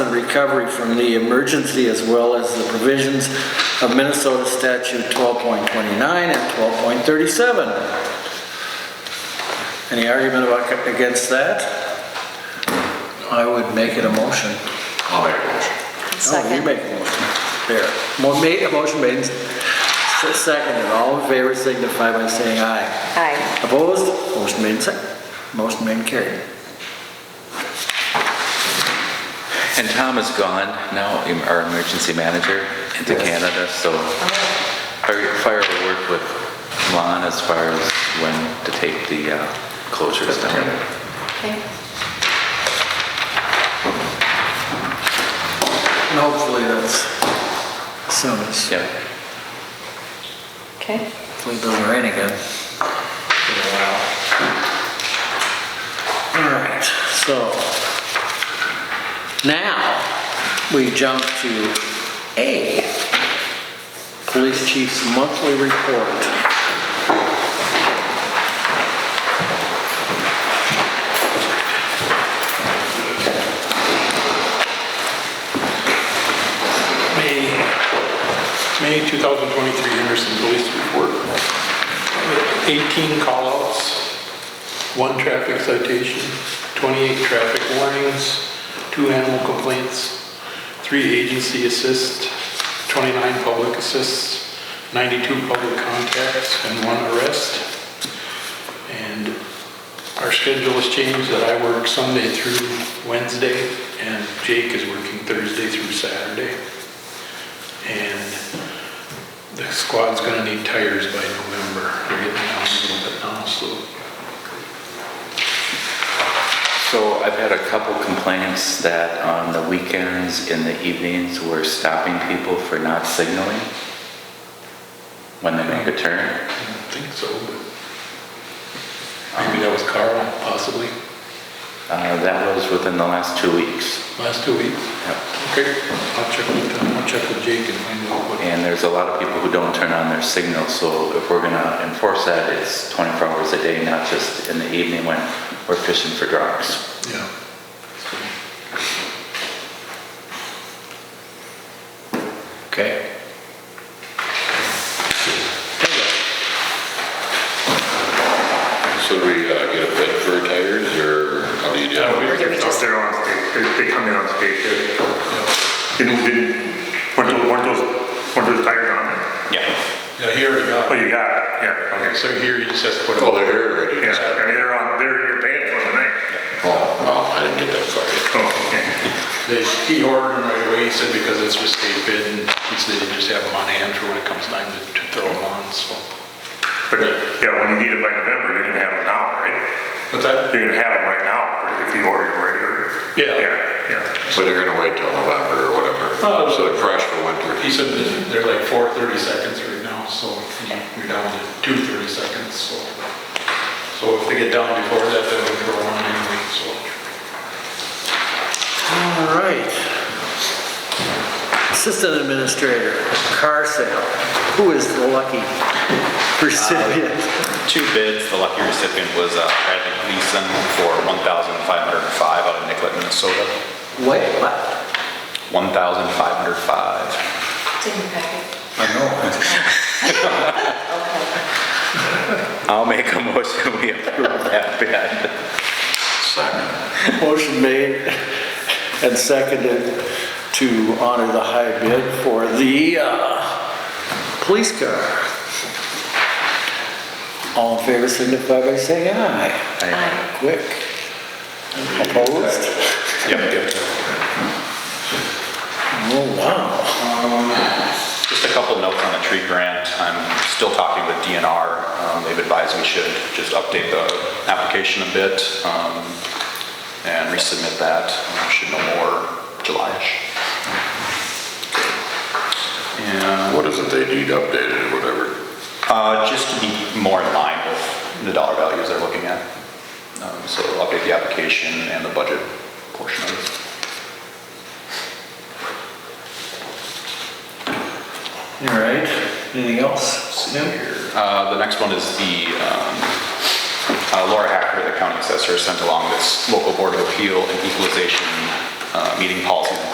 recovery from the emergency as well as the provisions of Minnesota statute 12.29 and 12.37. Any argument about, against that? I would make it a motion. I'll make a motion. No, you Second. make a motion. There. Mo- ma- a motion made, s- seconded. All in favor signify by saying aye. Aye. Opposed? Motion made, sec- motion made and carried. And Tom is gone now, em- our emergency manager into Yes. Canada, so our fire will work with Lon as far as when to take the uh, closures down. Okay. And hopefully that's soon as, Yeah. Okay. hopefully it doesn't rain again. For a while. All right, so now we jump to A, Police Chief's Monthly Report. May, May 2023 Henderson Police Report. 18 callouts, one traffic citation, 28 traffic warnings, two animal complaints, three agency assists, 29 public assists, 92 public contacts, and one arrest. And our schedule has changed that I work Sunday through Wednesday, and Jake is working Thursday through Saturday. And the squad's gonna need tires by November. They're getting down a little bit now, so So I've had a couple complaints that on the weekends, in the evenings, we're stopping people for not signaling when they make a turn. I don't think so, but maybe that was Carl, possibly, Uh, That was within the last two weeks. last two weeks. Yep. Okay, I'll check with, I'll check with Jake and find out what. And there's a lot of people who don't turn on their signal, so if we're gonna enforce that, it's 24 hours a day, not just in the evening when we're fishing for drugs. Yeah. Okay. So do we uh, get a bid for tires, or how do you do Yeah, it? we Or do we picked up just- there on state, they, they come in on state too. Didn't, didn't, weren't those, weren't those, weren't those tires on there? Yeah. Yeah, here we Oh, go. you got it, yeah, okay. So here you just have to put Oh, all they're here already? Yeah, I mean, they're on, they're, you're paying for them tonight. Oh, oh, I didn't get that far yet. Oh, okay. They, he ordered them right away, he said, because it's just a bid, and he said they just have them on hand for when it comes time to to throw them on, so. But, yeah, when you need it by November, you're gonna have them now, right? But that, You're gonna have them right now, if you order them right or. Yeah. Yeah, yeah. So they're gonna wait till November or Oh. whatever, so they're fresh for winter. he said that they're like four thirty seconds right now, so you're down to two thirty seconds, so. So if they get down before that, then we throw them on anyway, so. All right. Assistant Administrator, car sale. Who is the lucky recipient? two bids. The lucky recipient was uh, Bradley Gleason for 1,505 out of Nicollet, Minnesota. What? What? 1,505. Didn't pack it. I know. Okay. I'll make a motion, we approve that bid. Motion made and seconded to honor the high bid for the uh, police car. All in favor signify by saying aye. I- Quick. Opposed? Yep. Oh, wow. Just a couple notes on the tree grant. I'm still talking with DNR. Um, They've advised we should just update the application a bit um, and resubmit that. Um, Should know more July-ish. And What is it they need updated or whatever? Uh, Just to be more in line with the dollar values they're looking at. Um, So it'll update the application and the budget portion of it. All right. Anything else? No? Uh, The next one is the, um, uh, Laura Hacker, the county assessor, sent along this local board of appeal and equalization uh, meeting policies and